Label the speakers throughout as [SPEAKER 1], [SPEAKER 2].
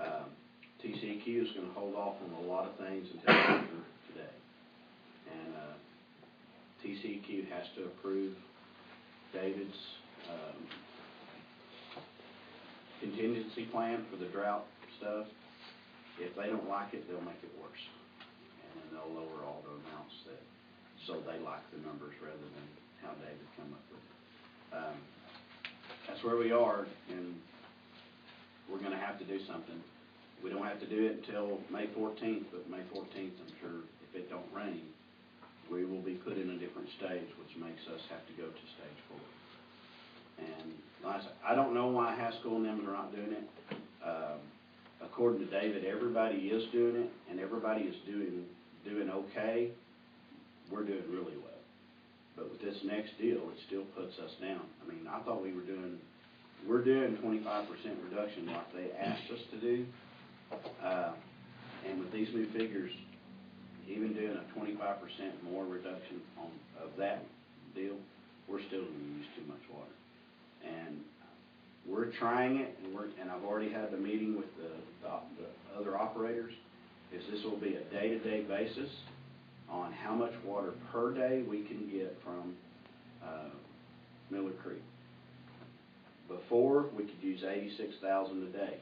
[SPEAKER 1] Um, DEQ is gonna hold off on a lot of things until after today. And, uh, TCEQ has to approve David's, um, contingency plan for the drought stuff. If they don't like it, they'll make it worse. And then they'll lower all the amounts that, so they like the numbers rather than how David come up with it. Um, That's where we are, and we're gonna have to do something. We don't have to do it until May fourteenth, but May fourteenth, I'm sure, if it don't rain, we will be put in a different stage, which makes us have to go to stage four. And like I said, I don't know why Haskell and them are not doing it. Um, According to David, everybody is doing it, and everybody is doing, doing okay. We're doing really well. But with this next deal, it still puts us down. I mean, I thought we were doing, we're doing twenty-five percent reduction like they asked us to do. Uh, And with these new figures, even doing a twenty-five percent more reduction on, of that deal, we're still gonna use too much water. And we're trying it, and we're, and I've already had the meeting with the, the op- the other operators, is this will be a day-to-day basis on how much water per day we can get from, uh, Miller Creek. Before, we could use eighty-six thousand a day.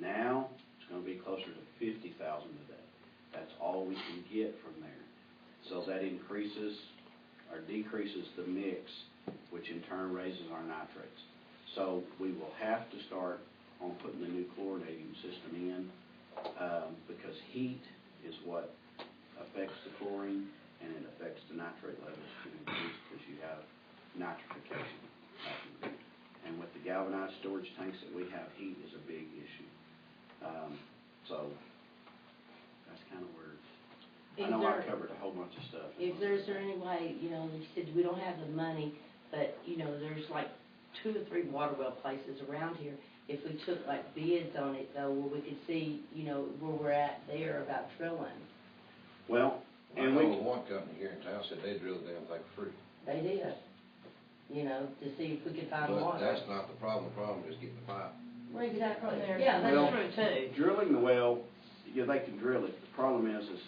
[SPEAKER 1] Now, it's gonna be closer to fifty thousand a day. That's all we can get from there. So that increases or decreases the mix, which in turn raises our nitrates. So we will have to start on putting the new chlorinating system in, um, because heat is what affects the chlorine and it affects the nitrate levels to increase because you have nitrification. happening. And with the galvanized storage tanks that we have, heat is a big issue. Um, so that's kind of where, I
[SPEAKER 2] Is
[SPEAKER 1] know I
[SPEAKER 2] there-
[SPEAKER 1] covered a whole bunch of stuff.
[SPEAKER 2] Is there, is there any way, you know, they said, we don't have the money, but, you know, there's like two or three water well places around here. If we took like bids on it though, where we could see, you know, where we're at there about drilling.
[SPEAKER 1] Well,
[SPEAKER 3] I
[SPEAKER 1] and we,
[SPEAKER 3] know one company here in town said they drill the damn thing for free.
[SPEAKER 2] They did, you know, to see if we could find
[SPEAKER 3] But
[SPEAKER 2] water.
[SPEAKER 3] that's not the problem, the problem is getting the pipe.
[SPEAKER 2] Well, Exactly,
[SPEAKER 4] There.
[SPEAKER 2] yeah,
[SPEAKER 1] Well-
[SPEAKER 2] that's true too.
[SPEAKER 1] Drilling the well, yeah, they can drill it, the problem is, is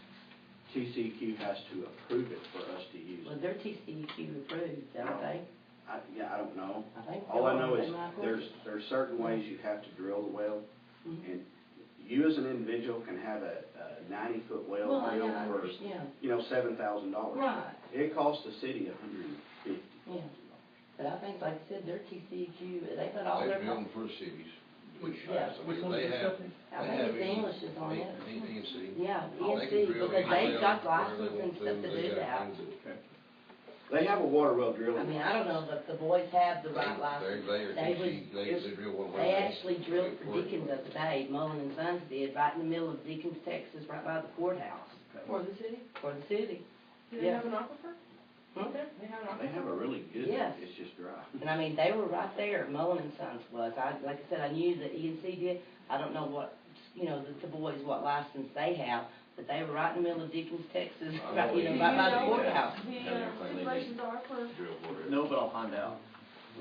[SPEAKER 1] TCEQ has to approve it for us to use
[SPEAKER 2] Well,
[SPEAKER 1] it.
[SPEAKER 2] they're TCEQ approved, don't they?
[SPEAKER 1] I, yeah, I don't know.
[SPEAKER 2] I think.
[SPEAKER 1] All I
[SPEAKER 2] they
[SPEAKER 1] know
[SPEAKER 2] are.
[SPEAKER 1] is
[SPEAKER 2] They might work.
[SPEAKER 1] there's, there's certain ways you have to drill the well,
[SPEAKER 2] Mhm.
[SPEAKER 1] and you as an individual can have a, a ninety-foot well
[SPEAKER 2] Well,
[SPEAKER 1] drilled
[SPEAKER 2] yeah, I
[SPEAKER 1] for,
[SPEAKER 2] understand,
[SPEAKER 1] you know, seven thousand dollars.
[SPEAKER 2] right,
[SPEAKER 1] It costs the city a hundred and fifty.
[SPEAKER 2] yeah. But I think, like I said, their TCEQ, E they put all
[SPEAKER 3] They
[SPEAKER 2] their.
[SPEAKER 3] drill them for cities.
[SPEAKER 5] Which-
[SPEAKER 3] Right, so
[SPEAKER 5] Which one
[SPEAKER 3] they
[SPEAKER 5] is this
[SPEAKER 3] have-
[SPEAKER 5] company?
[SPEAKER 2] I
[SPEAKER 3] they
[SPEAKER 2] think
[SPEAKER 3] have
[SPEAKER 2] it's
[SPEAKER 3] any-
[SPEAKER 2] English is on
[SPEAKER 3] any-
[SPEAKER 2] it.
[SPEAKER 3] any ENC.
[SPEAKER 2] Yeah,
[SPEAKER 3] They can
[SPEAKER 2] ENC,
[SPEAKER 3] drill
[SPEAKER 2] because they've
[SPEAKER 3] anything
[SPEAKER 2] got
[SPEAKER 3] where they
[SPEAKER 2] license and
[SPEAKER 3] want
[SPEAKER 2] stuff to do
[SPEAKER 3] They got
[SPEAKER 2] that.
[SPEAKER 3] things
[SPEAKER 1] They have a water well
[SPEAKER 2] I
[SPEAKER 1] drilling.
[SPEAKER 2] mean, I don't know, but the boys have the right
[SPEAKER 3] They,
[SPEAKER 2] license.
[SPEAKER 3] they, are
[SPEAKER 2] They
[SPEAKER 3] DC,
[SPEAKER 2] was-
[SPEAKER 3] they, they drill one.
[SPEAKER 2] They actually drilled for Deacon the other day, Mullen and Sons did, right in the middle of Deacon's, Texas, right by the courthouse,
[SPEAKER 4] For the city?
[SPEAKER 2] for the city.
[SPEAKER 4] Do they
[SPEAKER 2] Yeah.
[SPEAKER 4] have an aquifer?
[SPEAKER 2] Hmm?
[SPEAKER 4] They have an aquifer?
[SPEAKER 1] They have a really good,
[SPEAKER 2] Yes.
[SPEAKER 1] it's just dry.
[SPEAKER 2] And I mean, they were right there, Mullen and Sons was, I, like I said, I knew that ENC did, I don't know what, you know, the, the boys, what license they have, but they were right in the middle of Deacon's, Texas,
[SPEAKER 3] I
[SPEAKER 2] right,
[SPEAKER 3] know E
[SPEAKER 2] you know,
[SPEAKER 4] Do you
[SPEAKER 3] ENC
[SPEAKER 2] right by
[SPEAKER 4] know
[SPEAKER 2] the
[SPEAKER 3] does.
[SPEAKER 4] what
[SPEAKER 2] courthouse,
[SPEAKER 4] The uh, stipulations are for,
[SPEAKER 5] No, but I'll find out.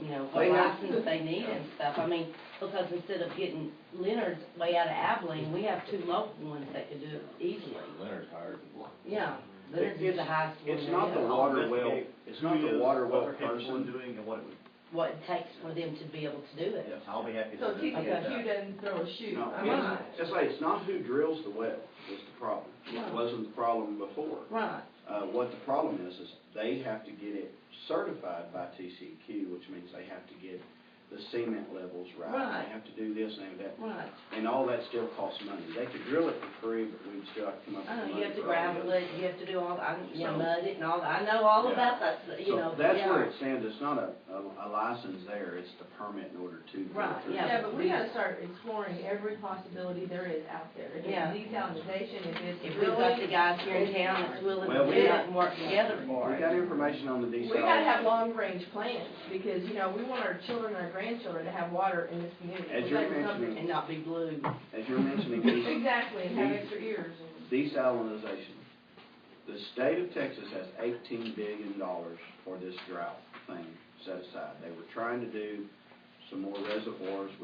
[SPEAKER 2] you know, what
[SPEAKER 1] They have-
[SPEAKER 2] license they need and stuff, I mean, because instead of getting Leonard's way out of Abilene, we have two local ones that could do it easily.
[SPEAKER 3] Leonard's hired.
[SPEAKER 2] Yeah, Leonard's is the highest one.
[SPEAKER 1] It's not the
[SPEAKER 2] there.
[SPEAKER 1] water well,
[SPEAKER 5] Investigate
[SPEAKER 1] it's not
[SPEAKER 5] who
[SPEAKER 1] the
[SPEAKER 5] is,
[SPEAKER 1] water
[SPEAKER 5] what
[SPEAKER 1] well
[SPEAKER 5] they're capable of
[SPEAKER 1] person.
[SPEAKER 5] Doing and what it was,
[SPEAKER 2] What it takes for them to be able to do it.
[SPEAKER 5] yes, I'll be happy to.
[SPEAKER 4] so
[SPEAKER 5] do that.
[SPEAKER 4] TCEQ doesn't throw a shoe.
[SPEAKER 1] No,
[SPEAKER 4] I mean,
[SPEAKER 2] Right.
[SPEAKER 1] it's, just like, it's not who drills the well is the problem.
[SPEAKER 2] Right.
[SPEAKER 1] It wasn't the problem before.
[SPEAKER 2] Right,
[SPEAKER 1] Uh, what the problem is, is they have to get it certified by TCQ, which means they have to get the cement levels right.
[SPEAKER 2] Right.
[SPEAKER 1] They have to do this and that,
[SPEAKER 2] right.
[SPEAKER 1] and all that still costs money. They could drill it for free, but we'd still have to come up with money.
[SPEAKER 2] I know, you have to
[SPEAKER 1] for all the
[SPEAKER 2] gravel
[SPEAKER 1] other
[SPEAKER 2] it, you have to do all, I, you know,
[SPEAKER 1] So-
[SPEAKER 2] mud it and all, that. I know all
[SPEAKER 1] Yeah.
[SPEAKER 2] about that, you know,
[SPEAKER 1] So
[SPEAKER 2] yeah.
[SPEAKER 1] that's where it stands, it's not a, a a license there, it's the permit in order to. go
[SPEAKER 2] Right,
[SPEAKER 1] through.
[SPEAKER 2] yeah.
[SPEAKER 4] Yeah, but we gotta start exploring every possibility there is out there. If
[SPEAKER 2] Yeah.
[SPEAKER 4] it's desalinization, if
[SPEAKER 2] If
[SPEAKER 4] it's
[SPEAKER 2] we've got the
[SPEAKER 4] drilling.
[SPEAKER 2] guys here in town that's willing
[SPEAKER 1] Well,
[SPEAKER 2] to
[SPEAKER 1] we
[SPEAKER 2] do it
[SPEAKER 1] got-
[SPEAKER 2] and work together
[SPEAKER 1] We
[SPEAKER 2] for it.
[SPEAKER 1] got information on the
[SPEAKER 4] We
[SPEAKER 1] desal.
[SPEAKER 4] gotta have long-range plans, because, you know, we want our children, and our grandchildren to have water in this community.
[SPEAKER 1] As
[SPEAKER 4] We
[SPEAKER 1] you're
[SPEAKER 4] gotta do something.
[SPEAKER 1] mentioning,
[SPEAKER 2] And not be blue.
[SPEAKER 1] as you're mentioning desal,
[SPEAKER 4] Exactly, and have
[SPEAKER 1] We-
[SPEAKER 4] extra ears. and-
[SPEAKER 1] desalinization. The state of Texas has eighteen billion dollars for this drought thing set aside. They were trying to do some more reservoirs, which